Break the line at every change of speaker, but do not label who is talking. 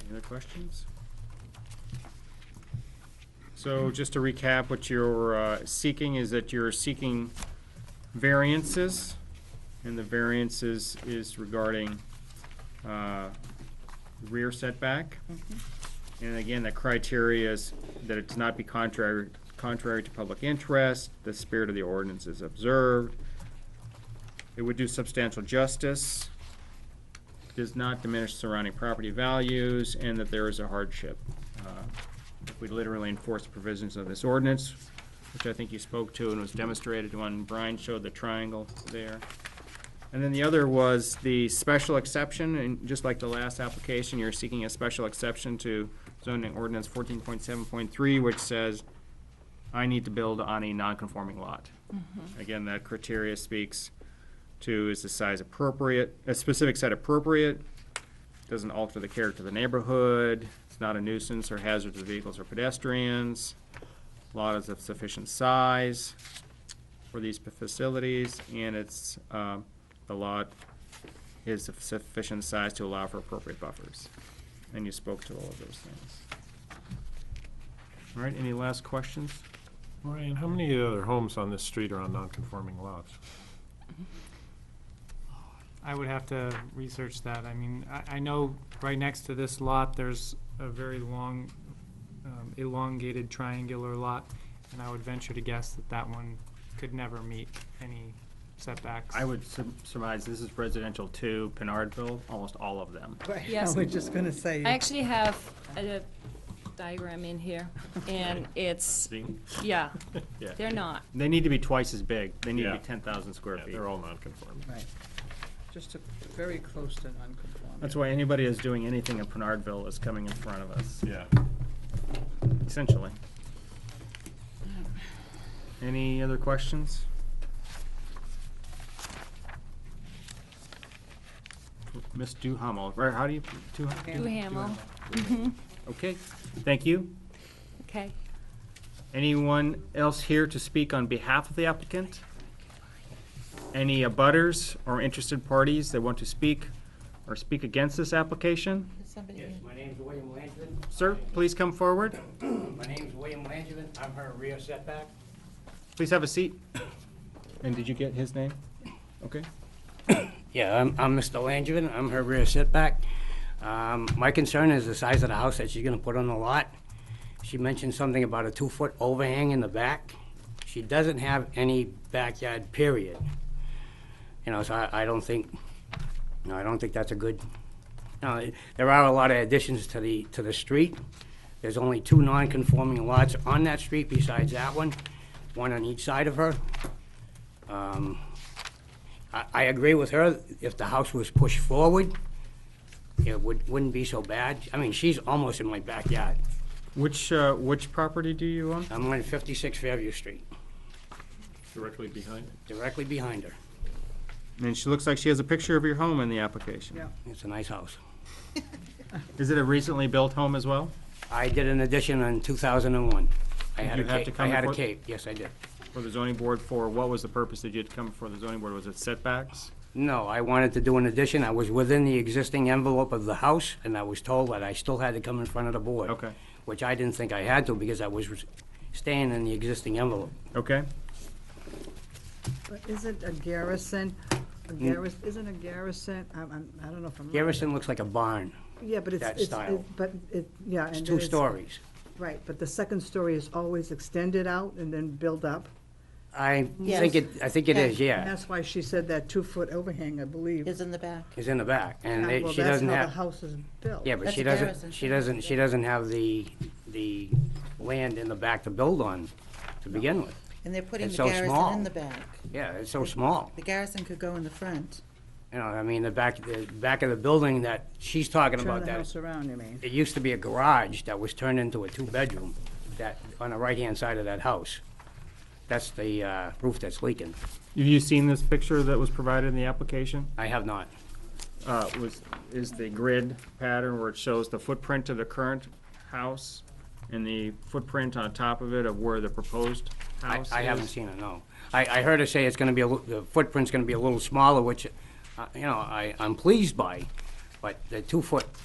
Any other questions? So just to recap, what you're uh, seeking is that you're seeking variances, and the variances is regarding uh, rear setback. And again, the criteria is that it's not be contrary, contrary to public interest, the spirit of the ordinance is observed, it would do substantial justice, does not diminish surrounding property values, and that there is a hardship. Uh, If we literally enforce the provisions of this ordinance, which I think you spoke to and was demonstrated when Brian showed the triangle there. And then the other was the special exception, and just like the last application, you're seeking a special exception to zoning ordinance fourteen point seven point three, which says, I need to build on a non-conforming lot. Again, that criteria speaks to is the size appropriate, a specific site appropriate, doesn't alter the character of the neighborhood, it's not a nuisance or hazard to vehicles or pedestrians, lot is of sufficient size for these facilities, and it's, um, the lot is of sufficient size to allow for appropriate buffers. And you spoke to all of those things. All right, any last questions?
Brian, how many other homes on this street are on non-conforming lots?
I would have to research that. I mean, I, I know right next to this lot, there's a very long, um, elongated triangular lot, and I would venture to guess that that one could never meet any setbacks.
I would sur- surmise this is residential two, Pinardville, almost all of them.
I
Yes.
was just gonna say.
I actually have a diagram in here, and it's,
See?
yeah,
Yeah.
they're not.
They need to be twice as big. They need to be
Yeah.
ten thousand square
Yeah,
feet.
they're all non-conforming.
Right. Just a- very close to non-conforming.
That's why anybody that's doing anything in Pinardville is coming in front of us,
Yeah.
essentially. Any other questions? Miss Duhamel, or how do you, Duhamel?
Do Hamel,
Okay, thank you.
okay.
Anyone else here to speak on behalf of the applicant? Any abutters or interested parties that want to speak or speak against this application?
Yes, my name's William Langevin.
Sir, please come forward.
My name's William Langevin. I'm her rear setback.
Please have a seat. And did you get his name? Okay.
Yeah, I'm, I'm Mr. Langevin. I'm her rear setback. Um, my concern is the size of the house that she's gonna put on the lot. She mentioned something about a two-foot overhang in the back. She doesn't have any backyard, period. You know, so I, I don't think, no, I don't think that's a good, no, it- there are a lot of additions to the, to the street. There's only two non-conforming lots on that street besides that one, one on each side of her. Um, I, I agree with her, if the house was pushed forward, it would, wouldn't be so bad. I mean, she's almost in my backyard.
Which, uh, which property do you own?
I'm on 56 Fairview Street,
Directly behind it.
directly behind her.
And she looks like she has a picture of your home in the application.
Yeah.
It's a nice house.
Is it a recently built home as well
I did an addition in 2001. I had
you
a
have to
cape, I
come
had a
before-
cape, yes, I did.
for the zoning board for, what was the purpose that you had come before the zoning board? Was it setbacks?
No, I wanted to do an addition, I was within the existing envelope of the house, and I was told that I still had to come in front of the board.
Okay.
Which I didn't think I had to, because I was staying in the existing envelope.
Okay.
But Isn't a garrison, a garrison, isn't a garrison, I'm, I'm, I don't know if I'm. right.
Mm. Garrison looks like a barn,
Yeah, but it's,
that
it's,
style.
it- but it, yeah.
it's
and
two
then
stories.
Right, but the second story is always extended out and then built up.
I
Yes.
think it, I think it is,
And
yeah.
that's why she said that two-foot overhang, I believe.
is in the back.
It's in the back, and
Yeah,
it- she doesn't
Well, that's how the
have,
house is built.
yeah, but she
That's a
doesn't,
garrison.
she doesn't, she doesn't have the, the land in the back to build on to begin with.
And they're putting
It's
the
so
garrison
small.
in the back.
Yeah, it's so small,
The garrison could go in the front.
you know, I mean, the back, the back of the building that she's talking
Turn
about,
the
that,
house around, you mean?
it used to be a garage that was turned into a two-bedroom, that, on the right-hand side of that house. That's the uh, roof that's leaking.
Have you seen this picture that was provided in the application?
I have not.
uh, was, is the grid pattern where it shows the footprint of the current house and the footprint on top of it of where the proposed
I-
house is?
I haven't seen it, no. I, I heard her say it's gonna be, a lit- the footprint's gonna be a little smaller, which, uh, you know, I, I'm pleased by, but the two-foot